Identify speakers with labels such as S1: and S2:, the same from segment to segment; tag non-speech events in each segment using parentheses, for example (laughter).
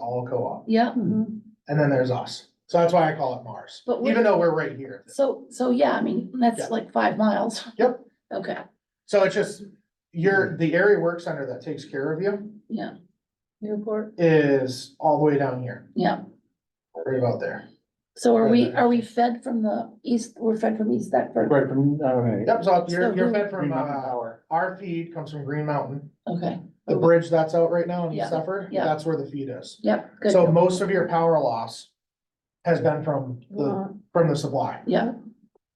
S1: all co-op,
S2: Yeah,
S1: and then there's us. So that's why I call it Mars,
S2: But we-
S1: even though we're right here.
S2: so, so yeah, I mean,
S1: Yeah.
S2: that's like five miles.
S1: Yep.
S2: Okay,
S1: So it's just,
S3: Hmm.
S1: your the area work center that takes care of you
S2: yeah. Newport.
S1: is all the way down here,
S2: Yeah,
S1: right about there.
S2: so are we, are we fed from the east, we're fed from East Thetford?
S3: Right, from, all right.
S1: Yep, so you're,
S2: So
S1: you're
S2: who-
S1: fed from,
S3: Green Mountain
S1: uh,
S3: Power.
S1: our feed comes from Green Mountain.
S2: Okay,
S1: The bridge that's out right now in
S2: Yeah,
S1: East Suffolk,
S2: yeah.
S1: that's where the feed is.
S2: yep, good.
S1: So most of your power loss has been from the, from the supply,
S2: Yeah,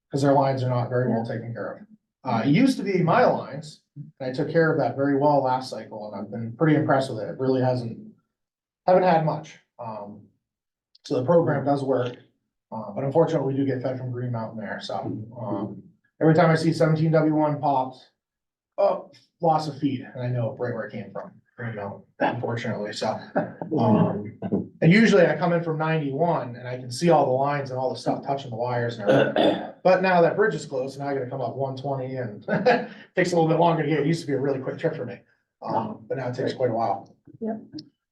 S1: because their lines are not very well taken care of. Uh, it used to be my lines, and I took care of that very well last cycle, and I've been pretty impressed with it. It really hasn't, haven't had much. Um, so the program does work, uh, but unfortunately, we do get fed from Green Mountain there, so, um, every time I see seventeen W one popped, oh, loss of feed, and I know right where it came from, Green Mountain, unfortunately, so.
S3: Oh.
S1: Um, and usually I come in from ninety-one and I can see all the lines and all the stuff touching the wires and everything. But now that bridge is closed, now I gotta come up one twenty and (laughs) takes a little bit longer to get, it used to be a really quick trip for me, um, but now it takes quite a while.
S2: Yep.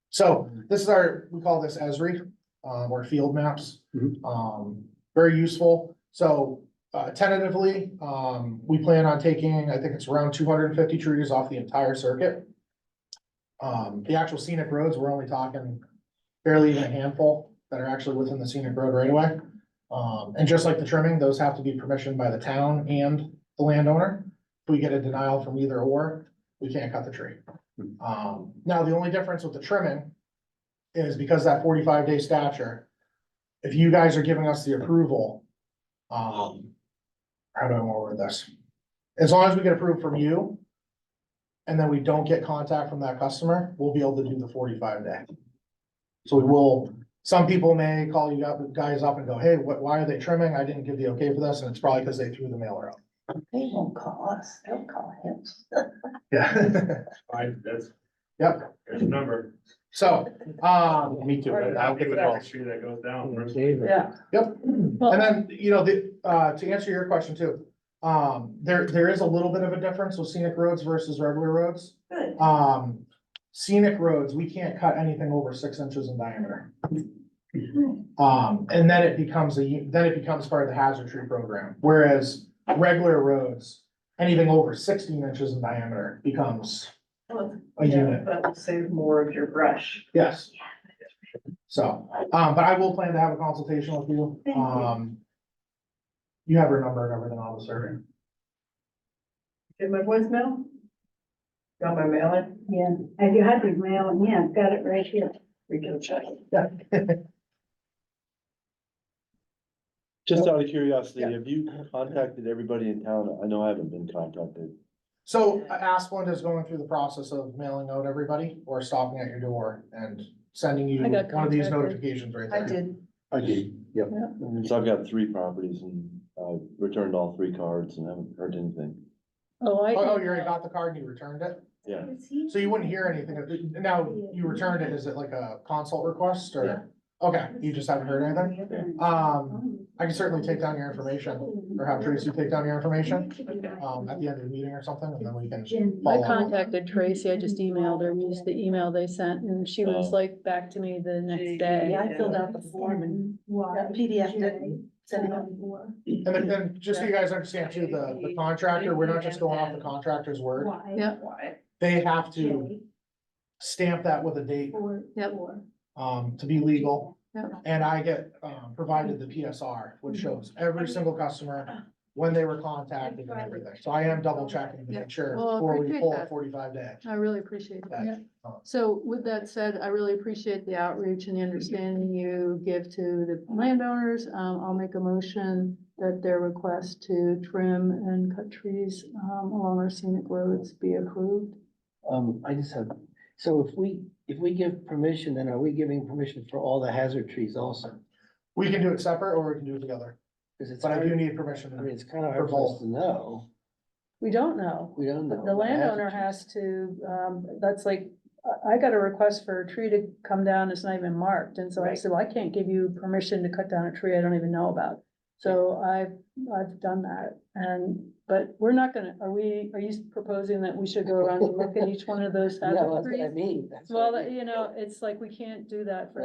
S1: So this is our, we call this Esri, um, or field maps.
S3: Mhm.
S1: Um, very useful. So, uh, tentatively, um, we plan on taking, I think it's around two hundred and fifty trees off the entire circuit. Um, the actual scenic roads, we're only talking barely even a handful that are actually within the scenic road right away. Um, and just like the trimming, those have to be permissioned by the town and the landowner. If we get a denial from either or, we can't cut the tree. Um, now, the only difference with the trimming is because that forty-five day stature, if you guys are giving us the approval, um, how do I wanna word this? As long as we get approved from you, and then we don't get contact from that customer, we'll be able to do the forty-five day. So we will, some people may call you up, guys up and go, hey, what, why are they trimming? I didn't give the okay for this, and it's probably because they threw the mailer out.
S2: they won't call us, they'll call him.
S1: Yeah,
S4: I, that's,
S1: yep,
S4: there's a number.
S1: (laughs) so, um,
S3: Me too. but
S4: I'll
S3: I'll
S4: give
S3: give
S4: it
S3: it
S4: all.
S3: all.
S4: Tree that goes down. first.
S2: Yeah.
S1: Yep, and then, you know, the, uh, to answer your question too, um, there, there is a little bit of a difference with scenic roads versus regular roads.
S2: Good.
S1: Um, scenic roads, we can't cut anything over six inches in diameter. Um, and then it becomes a, u- then it becomes part of the hazard tree program, whereas regular roads, anything over sixteen inches in diameter becomes a
S5: Yeah,
S1: unit,
S5: That will save more of your brush.
S1: yes. So, um, but I will plan to have a consultation with you,
S5: Thank you.
S1: um. You have her number and everything on the survey.
S5: Did my voicemail? Got my mailing?
S6: Yeah, have you had your mail? And Yeah, I've got it right here.
S5: We can check.
S3: Just out of curiosity,
S1: Yeah.
S3: have you contacted everybody in town? I know I haven't been contacted.
S1: So uh, Asplund is going through the process of mailing out everybody or stopping at your door and sending you
S2: I got
S1: one of these
S2: contacted.
S1: notifications right there.
S5: did.
S3: I did, yep.
S2: Yeah.
S3: So I've got three properties and I returned all three cards and haven't heard anything.
S2: Oh, I.
S1: Oh, oh, you already got the card and you returned it?
S3: Yeah.
S1: So you wouldn't hear anything, of it- now, you returned it, is it like a consult request or? Okay, you just haven't heard anything? Um, I can certainly take down your information, or have Tracy take down your information, um, at the end of the meeting or something, and then we can,
S2: I
S1: follow up.
S2: contacted Tracy, I just emailed her, used the email they sent, and she was
S3: Oh.
S2: like back to me the next day.
S5: Yeah, I filled
S6: out the form and PDF didn't send it.
S1: and then, then just so you guys understand too, the, the contractor, we're not just going off the contractor's word.
S2: Yeah.
S5: Why?
S1: They have to stamp that with a date,
S2: Yep.
S1: um, to be legal.
S2: Yep.
S1: And I get, um, provided the PSR, which
S7: Mm-hmm.
S1: shows every single customer when they were contacted and everything. So I am double checking to
S7: Yeah.
S1: make sure
S7: Well, I
S1: before we
S7: appreciate
S1: pull a
S7: that.
S1: forty-five day.
S7: I really appreciate
S1: Yeah.
S7: that. So with that said, I really appreciate the outreach and the understanding you give to the landowners. Um, I'll make a motion that their request to trim and cut trees, um, along our scenic roads be approved.
S8: Um, I just have, so if we, if we give permission, then are we giving permission for all the hazard trees also?
S1: We can do it separate or we can do it together,
S8: Cause it's,
S1: but I do
S8: hard-
S1: need permission.
S8: I mean, it's kind of hard for us to know.
S2: We don't know.
S8: We don't know.
S5: Oh,
S2: The landowner has to, um, that's like, I, I got a request for a tree to come down, it's not even marked, and so I
S5: Right.
S2: said, well, I can't give you permission to cut down a tree I don't even know about. So I've, I've done that, and
S7: but we're not gonna, are we, are you proposing that we should go around and look at each one of those
S5: (laughs) No,
S7: hazard
S5: that's what I
S7: trees?
S5: mean. that's what I
S7: Well,
S5: mean.
S7: you know, it's like, we can't do that for